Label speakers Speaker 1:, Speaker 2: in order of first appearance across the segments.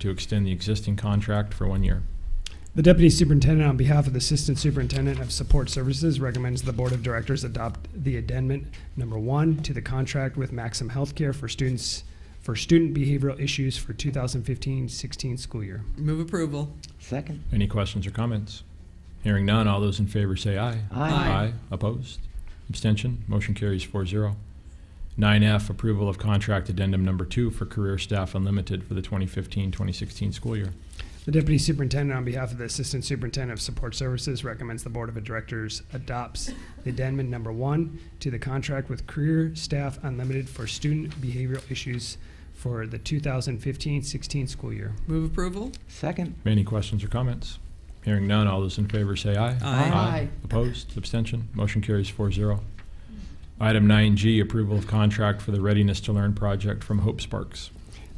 Speaker 1: to extend the existing contract for one year.
Speaker 2: The deputy superintendent, on behalf of the assistant superintendent of support services, recommends the board of directors adopt the addendum number one to the contract with Maxim Healthcare for students, for student behavioral issues for 2015-16 school year.
Speaker 3: Move approval.
Speaker 4: Second.
Speaker 1: Any questions or comments? Hearing none, all those in favor say aye.
Speaker 3: Aye.
Speaker 1: Opposed? Abstention? Motion carries 4-0. Nine F, approval of contract addendum number two for Career Staff Unlimited for the 2015-2016 school year.
Speaker 2: The deputy superintendent, on behalf of the assistant superintendent of support services, recommends the board of directors adopts the addendum number one to the contract with Career Staff Unlimited for student behavioral issues for the 2015-16 school year.
Speaker 3: Move approval.
Speaker 4: Second.
Speaker 1: Any questions or comments? Hearing none, all those in favor say aye.
Speaker 3: Aye.
Speaker 4: Aye.
Speaker 1: Opposed? Abstention? Motion carries 4-0. Item nine G, approval of contract for the Readiness to Learn project from Hope Sparks.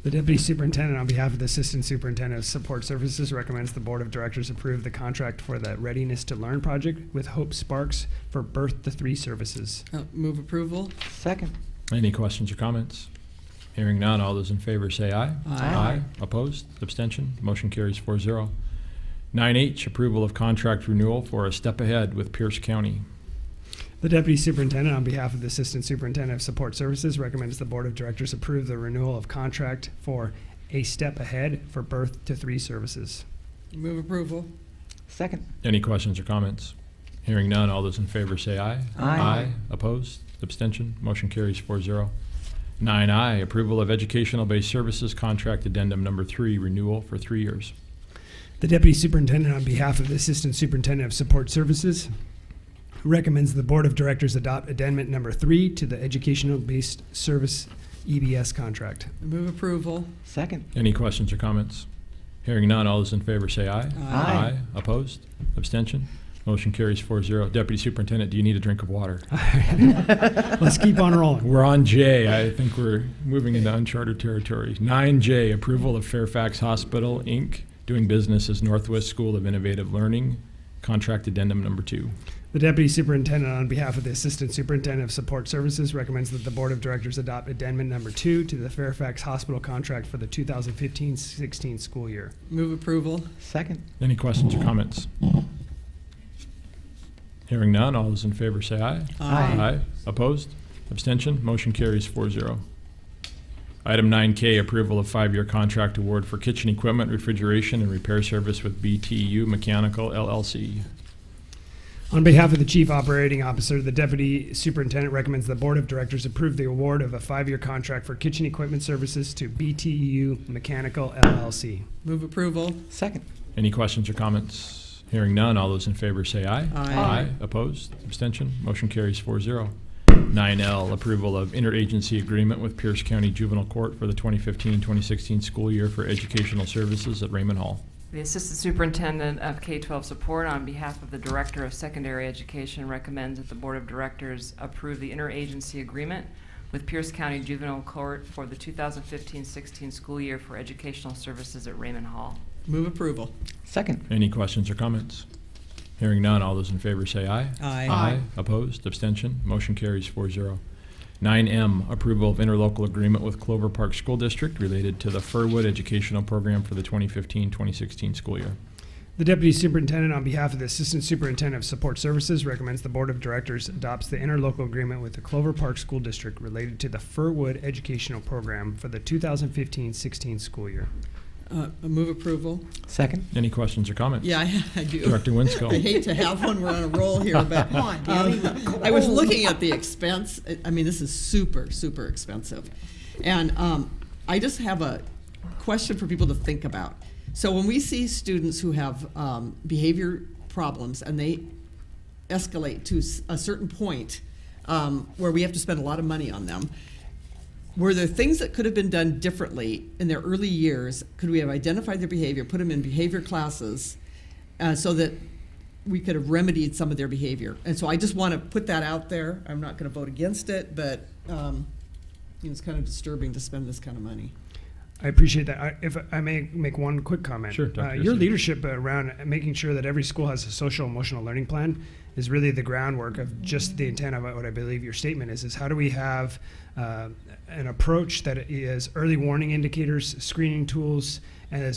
Speaker 2: The deputy superintendent, on behalf of the assistant superintendent of support services, recommends the board of directors approve the contract for the Readiness to Learn project with Hope Sparks for Birth to Three services.
Speaker 3: Uh, Move approval.
Speaker 4: Second.
Speaker 1: Any questions or comments? Hearing none, all those in favor say aye.
Speaker 4: Aye.
Speaker 1: Opposed? Abstention? Motion carries 4-0. Nine H, approval of contract renewal for a step ahead with Pierce County.
Speaker 2: The deputy superintendent, on behalf of the assistant superintendent of support services, recommends the board of directors approve the renewal of contract for A Step Ahead for Birth to Three services.
Speaker 3: Move approval.
Speaker 4: Second.
Speaker 1: Any questions or comments? Hearing none, all those in favor say aye.
Speaker 4: Aye.
Speaker 1: Opposed? Abstention? Motion carries 4-0. Nine I, approval of educational-based services contract addendum number three, renewal for three years.
Speaker 2: The deputy superintendent, on behalf of the assistant superintendent of support services, recommends the board of directors adopt addendum number three to the educational-based service EBS contract.
Speaker 3: Move approval.
Speaker 4: Second.
Speaker 1: Any questions or comments? Hearing none, all those in favor say aye.
Speaker 4: Aye.
Speaker 1: Opposed? Abstention? Motion carries 4-0. Deputy Superintendent, do you need a drink of water?
Speaker 2: Let's keep on rolling.
Speaker 1: We're on J. I think we're moving into uncharted territory. Nine J, approval of Fairfax Hospital, Inc., doing business as Northwest School of Innovative Learning, contract addendum number two.
Speaker 2: The deputy superintendent, on behalf of the assistant superintendent of support services, recommends that the board of directors adopt addendum number two to the Fairfax Hospital contract for the 2015-16 school year.
Speaker 3: Move approval.
Speaker 4: Second.
Speaker 1: Any questions or comments? Hearing none, all those in favor say aye.
Speaker 4: Aye.
Speaker 1: Opposed? Abstention? Motion carries 4-0. Item nine K, approval of five-year contract award for kitchen equipment, refrigeration, and repair service with BTU Mechanical LLC.
Speaker 2: On behalf of the Chief Operating Officer, the Deputy Superintendent recommends the Board of Directors approve the award of a five-year contract for kitchen equipment services to BTU Mechanical LLC.
Speaker 3: Move approval.
Speaker 4: Second.
Speaker 1: Any questions or comments? Hearing none, all those in favor say aye.
Speaker 3: Aye.
Speaker 1: Opposed? Abstention? Motion carries 4-0. Nine L, approval of interagency agreement with Pierce County Juvenile Court for the 2015-2016 school year for educational services at Raymond Hall.
Speaker 5: The Assistant Superintendent of K-12 Support, on behalf of the Director of Secondary Education, recommends that the Board of Directors approve the interagency agreement with Pierce County Juvenile Court for the 2015-16 school year for educational services at Raymond Hall.
Speaker 3: Move approval.
Speaker 4: Second.
Speaker 1: Any questions or comments? Hearing none, all those in favor say aye. Opposed? Abstention? Motion carries 4-0. Nine M, approval of interlocal agreement with Clover Park School District related to the Furwood Educational Program for the 2015-2016 school year.
Speaker 2: The Deputy Superintendent, on behalf of the Assistant Superintendent of Support Services, recommends the Board of Directors adopts the interlocal agreement with the Clover Park School District related to the Furwood Educational Program for the 2015-16 school year.
Speaker 3: Uh, Move approval.
Speaker 4: Second.
Speaker 1: Any questions or comments?
Speaker 3: Yeah, I- I do.
Speaker 1: Director Winsco.
Speaker 3: I hate to have one, we're on a roll here, but
Speaker 6: Come on, Danny.
Speaker 3: um, I was looking at the expense. I- I mean, this is super, super expensive. And um, I just have a question for people to think about. So when we see students who have um, behavior problems and they escalate to s- a certain point um, where we have to spend a lot of money on them, were there things that could have been done differently in their early years? Could we have identified their behavior, put them in behavior classes, uh, so that we could have remedied some of their behavior? And so I just want to put that out there. I'm not going to vote against it, but um, you know, it's kind of disturbing to spend this kind of money.
Speaker 2: I appreciate that. I, if I may make one quick comment.
Speaker 1: Sure, Dr.
Speaker 2: Uh, your
Speaker 1: Yossi.
Speaker 2: leadership around making sure that every school has a social emotional learning plan is really the groundwork of just the intent of what I believe your statement is, is how do we have uh, an approach that is early warning indicators, screening tools, and is